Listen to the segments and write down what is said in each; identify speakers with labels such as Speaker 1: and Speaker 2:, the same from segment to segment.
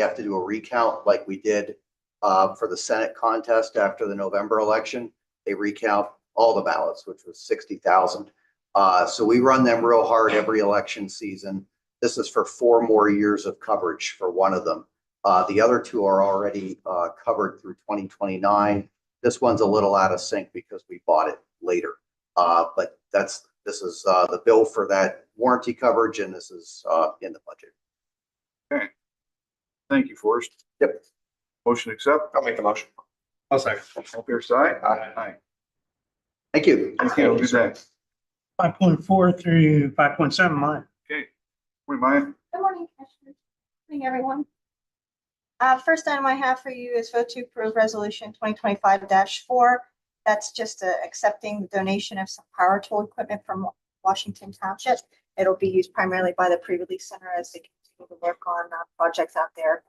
Speaker 1: we have to do a recount like we did uh, for the Senate contest after the November election. They recount all the ballots, which was sixty thousand. Uh, so we run them real hard every election season. This is for four more years of coverage for one of them. Uh, the other two are already uh, covered through twenty twenty-nine. This one's a little out of sync because we bought it later. Uh, but that's, this is uh, the bill for that warranty coverage and this is uh, in the budget.
Speaker 2: Thank you, Forrest.
Speaker 1: Yep.
Speaker 2: Motion accept.
Speaker 3: I'll make the motion.
Speaker 4: I'll second.
Speaker 2: All fair side?
Speaker 3: Aye.
Speaker 1: Thank you.
Speaker 2: Thank you. Good day.
Speaker 4: Five point four through five point seven, mine.
Speaker 2: Okay. Morning, Maya.
Speaker 5: Good morning, Commissioners. Good Morning, everyone. Uh, First item I have for you is vote to approve Resolution 2025-4. That's just uh, accepting the donation of some power tool equipment from Washington Township. It'll be used primarily by the pre-release center as they continue to work on uh, projects out there,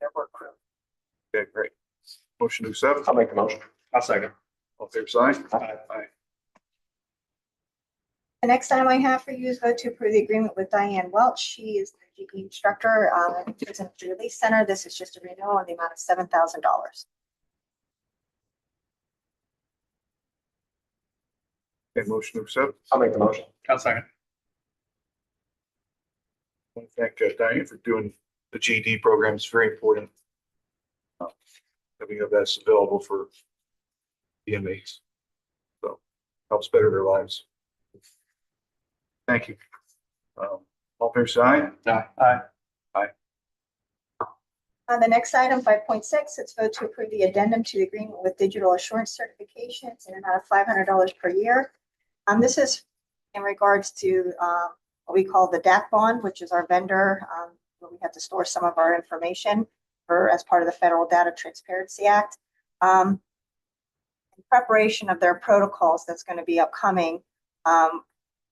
Speaker 5: their work crew.
Speaker 2: Okay, great. Motion accept.
Speaker 3: I'll make the motion.
Speaker 4: I'll second.
Speaker 2: All fair side?
Speaker 3: Aye.
Speaker 5: The next item I have for you is vote to approve the agreement with Diane Welch. She is the GE instructor um, at the Prison Release Center. This is just a renewal on the amount of $7,000.
Speaker 2: Okay, motion accept.
Speaker 3: I'll make the motion.
Speaker 4: I'll second.
Speaker 2: I want to Thank uh, Diane for doing the GD program. It's very important. uh, That we have that's available for the inmates. So helps better their lives. Thank you. Um, All fair side?
Speaker 4: Aye.
Speaker 5: On the next item, five point six, it's vote to approve the addendum to the agreement with digital assurance certifications in an amount of five hundred dollars per year. Um, this is in regards to, um, what we call the DAP bond, which is our vendor, um, where we have to store some of our information for, as part of the Federal Data Transparency Act. Um, in preparation of their protocols that's going to be upcoming, um,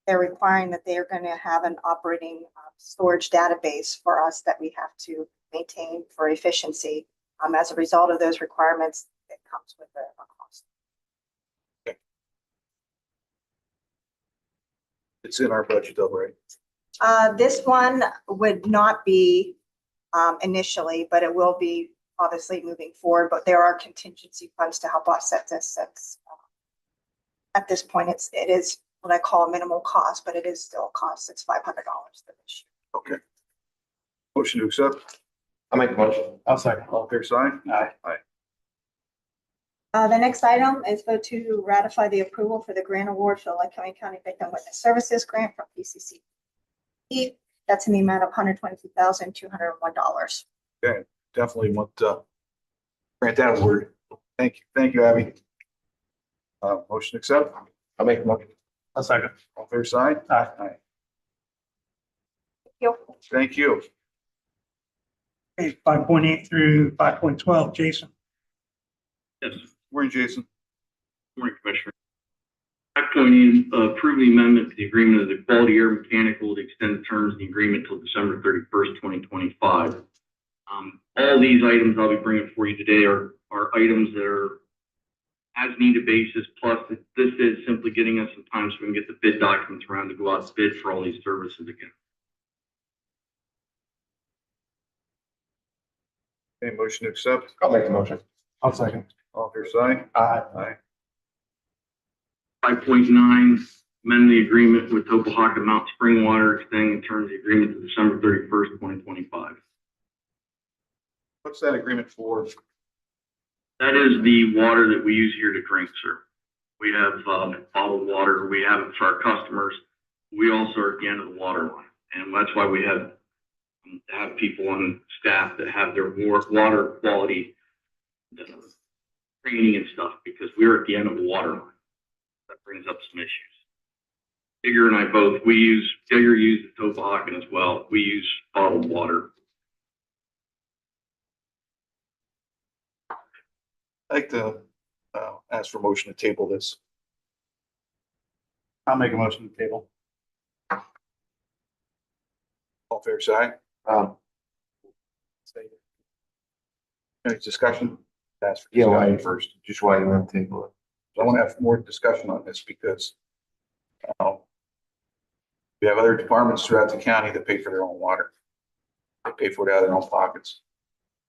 Speaker 5: they're requiring that they are going to have an operating uh, storage database for us that we have to maintain for efficiency. Um, as a result of those requirements, it comes with a a cost.
Speaker 2: It's in our budget though, right?
Speaker 5: Uh, this one would not be, um, initially, but it will be obviously moving forward, but there are contingency funds to help offset this since uh, at this point, it's, it is what I call minimal cost, but it is still a cost. It's five hundred dollars for this year.
Speaker 2: Okay. Motion to accept.
Speaker 3: I'll make the motion.
Speaker 4: I'll second.
Speaker 2: All fair side?
Speaker 4: Aye.
Speaker 5: Uh, the next item is vote to ratify the approval for the grant award for the Lycoming County Victim Witness Services Grant from PCC. That's in the amount of hundred twenty-two thousand, two hundred and one dollars.
Speaker 2: Definitely want to grant that award. Thank you. Thank you, Abby. Uh, motion accept.
Speaker 3: I'll make the motion.
Speaker 4: I'll second.
Speaker 2: All fair side?
Speaker 4: Aye.
Speaker 2: Thank you.
Speaker 4: Okay, five point eight through five point twelve, Jason.
Speaker 2: Morning, Jason.
Speaker 6: Morning, Commissioner. Act on the, uh, approving amendment to the agreement of the Quality Air Mechanical to extend the terms of the agreement till December thirty-first, twenty twenty-five. Um, all these items I'll be bringing for you today are, are items that are as needed basis, plus this is simply getting us some time so we can get the bid documents around to go out to bid for all these services again.
Speaker 2: Okay, motion accept.
Speaker 3: I'll make the motion.
Speaker 4: I'll second.
Speaker 2: All fair side?
Speaker 4: Aye.
Speaker 2: Aye.
Speaker 6: Five point nine, amend the agreement with Topaca Mount Springwater, extending the terms of the agreement to December thirty-first, twenty twenty-five.
Speaker 2: What's that agreement for?
Speaker 6: That is the water that we use here to drink, sir. We have um, bottled water, we have it for our customers. We also are at the end of the water line, and that's why we have, um, have people on staff that have their wa- water quality uh, training and stuff, because we're at the end of the water line. That brings up some issues. Digger and I both, we use, Digger uses Tobacan as well, we use bottled water.
Speaker 2: I'd like to, uh, ask for motion to table this.
Speaker 4: I'll make a motion to table.
Speaker 2: All fair side?
Speaker 3: Um,
Speaker 2: Any discussion? Ask for
Speaker 3: yeah, why
Speaker 2: discussion
Speaker 3: first?
Speaker 2: first.
Speaker 3: Just why you want to table it?
Speaker 2: So I want to have more discussion on this because um, we have other departments throughout the county that pay for their own water. They pay for it out of their own pockets.